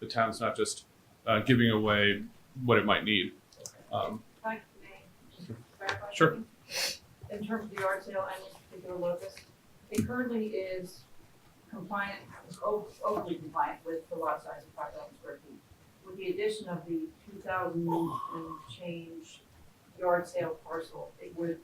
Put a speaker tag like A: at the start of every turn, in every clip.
A: the town's not just uh, giving away what it might need. Um,
B: Hi, may I clarify
A: Sure.
B: something? In terms of the yard sale and this particular locus, it currently is compliant, o- overly compliant with the lot size of five thousand square feet. With the addition of the two thousand and change yard sale parcel, it would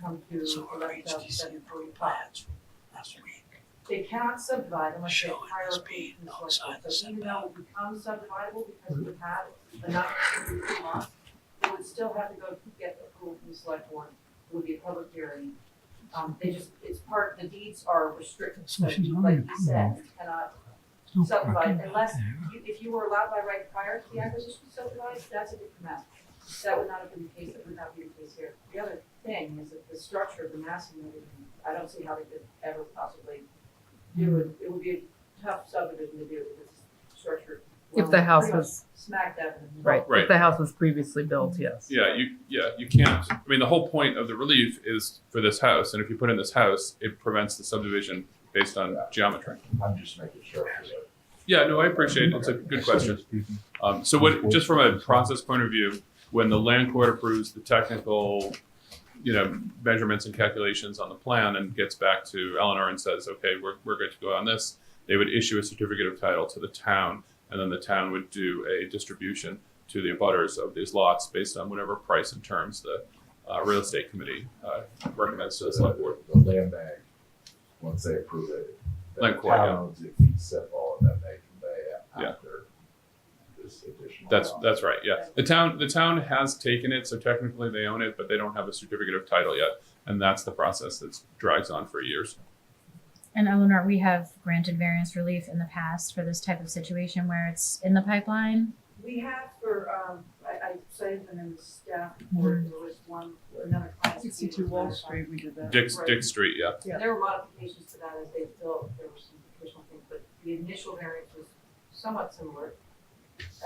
B: come to
C: So our
B: eleven thousand
C: HDC
B: seven
C: approved
B: forty-five.
C: plans last week
B: They cannot subdivide unless they
C: Showing
B: hire
C: us
B: a
C: being
B: person to
C: outside the
B: select. So even though it becomes subdividable because we have enough to do two lots, they would still have to go to get approval from the select board, It would be a public hearing. Um, they just, it's part, the deeds are restricted, so
D: So she's
B: you- like
D: already
B: you said, you cannot,
E: Oh,
D: No
B: subdivide
D: parking back
B: unless,
D: there.
B: you- if you were allowed by right prior to the acquisition to subdivide, that's a different matter. That would not have been the case, that would not be the case here. The other thing is that the structure of the massing of it, I don't see how they could ever possibly do
E: Hmm.
B: it. It would be a tough subdivision to do with this structure.
E: If the house
B: Pretty much
E: was,
B: Smack dab in the middle.
E: right,
A: Right.
E: if the house was previously built, yes.
A: yeah, you yeah you can't. I mean, the whole point of the relief is for this house, and if you put in this house, it prevents the subdivision based on geometry.
F: I'm just making sure.
A: Yeah, no, I appreciate it. It's a good question. Um, so, what just from a process point of view, when the land court approves the technical, you know, measurements and calculations on the plan, and gets back to Eleanor and says, "Okay, we're we're good to go on this," they would issue a certificate of title to the town, and then the town would do a distribution to the abutters of these lots based on whatever price and terms the uh, real estate committee uh, recommends to the select board.
F: The land bank, once they approve it. the
A: Land court, yeah.
F: towns, If you set all of that, they convey it
A: Yeah.
F: after this additional.
A: That's
F: lot.
A: that's right. Yeah, the town the town has taken it, so technically they own it, but they don't have a certificate of title yet, and that's the process that drags on for years.
G: And Eleanor, we have granted variance relief in the past for this type of situation where it's in the pipeline.
B: We have for, um, I, I cited them in the staff
E: Hmm.
B: report, there was one, another client.
C: Sixty-two Wall Street, we did that.
A: Dick
B: Right.
A: Dick Street, yeah,
C: Yeah.
B: There were modifications to that as they built, there were some additional things, but the initial variance was somewhat similar.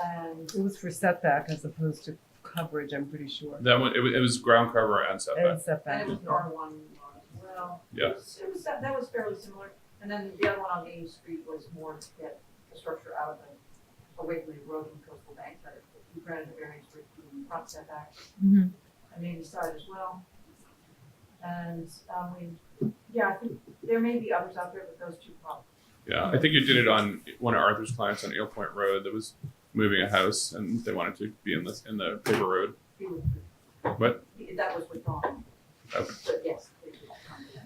B: And
C: It was for setback as opposed to coverage, I'm pretty sure.
A: that one it was, it was ground cover and setback.
C: And setback.
B: then it was an R one as well. It
A: Yeah.
B: was- It was, that that was fairly similar, and then the other one on Main Street was more to get the structure out of the, away from the road and coastal bank, but you granted the variance for the front setback.
G: Mhm.
B: I mean, side as well. And, um, we, yeah, I think there may be others out there, but those two probably.
A: Yeah, I think you did it on one of Arthur's clients on Eel Point Road that was moving a house, and they wanted to be in this in the paper road.
B: he would-
A: What?
B: he- That was withdrawn.
A: Okay.
B: But yes, they did come to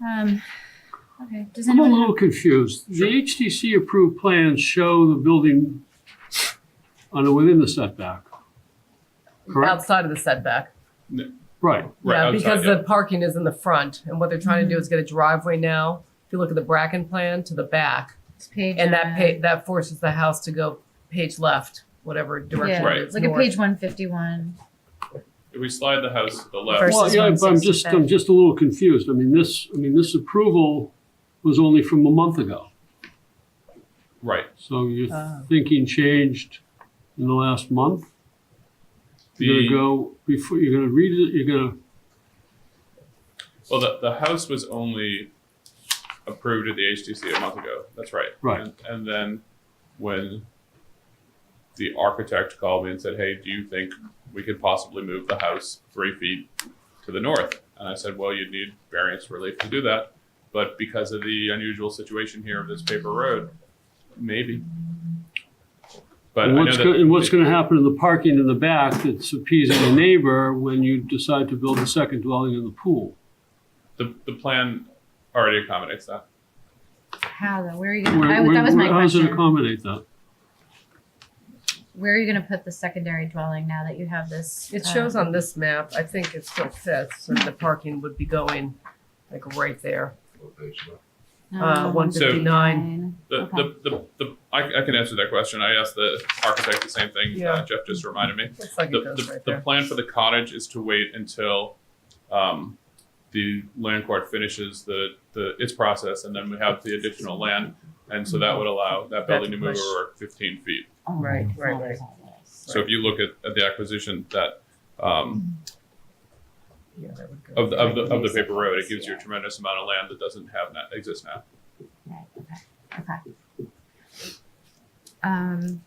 B: that.
G: Um, okay, does
D: I'm a
G: anyone,
D: little confused. The HDC approved plans show the building on, the- within the setback. Correct?
E: Outside of the setback.
D: Right.
A: Right
E: Yeah,
A: outside,
E: because
A: yeah.
E: the parking is in the front and what they're trying to
C: Mm-hmm.
E: do is get a driveway now. If you look at the Bracken plan to the back
G: it's page.
E: and
G: uh,
E: that pa- that forces the house to go page left, whatever direction
G: Yeah,
A: Right.
E: it
G: it's
E: is.
G: like a
E: north.
G: page one fifty-one.
A: if we slide the house to the left,
G: Versus
D: Well, yeah, but I'm just,
G: 165.
D: I'm just a little confused. I mean, this, I mean, this approval was only from a month ago.
A: right?
D: So your
G: Ah.
E: Oh.
D: thinking changed in the last month? You're
A: The-
D: gonna go, before, you're gonna read it, you're gonna
A: Well, the, the house was only approved at the HTC a month ago. That's right.
D: Right.
A: And, and then when the architect called me and said, "Hey, do you think we could possibly move the house three feet to the north?" And I said, "Well, you'd need variance relief to do that, but because of the unusual situation here of this paper road, maybe." But
D: And
A: I
D: what's,
A: know
D: go-
A: that
D: and what's gonna happen to the parking in the back that's appeasing the neighbor when you decide to build a second dwelling in the pool?
A: the, the plan already accommodates that.
G: How though, where are you,
D: Where-
G: gonna- I was-
D: where-
G: that was my
D: where- How does it
G: question.
D: accommodate that?
G: Where are you gonna put the secondary dwelling now that you have this?
E: It shows
G: um,
E: on this map, I think it still fits, and the parking would be going like right there.
F: Location.
C: Oh.
E: uh,
G: um,
E: 159.
A: The, the, the, the I, I can answer that question. I asked the architect the same thing.
E: Yeah.
A: Uh, Jeff just reminded me.
E: Looks like
A: The,
E: it goes
A: the,
E: right
A: the
E: there.
A: plan for the cottage is to wait until um, the land court finishes the, the its process, and then we have the additional land, and so that would allow that building to move
E: push.
A: over 15 feet.
E: Right, right, right.
A: So if you look at, at the acquisition that um,
E: Yeah, that would go.
A: of the of the of the paper road, it gives you a tremendous amount of land that doesn't have that exist now.
G: Right, okay, okay. Um,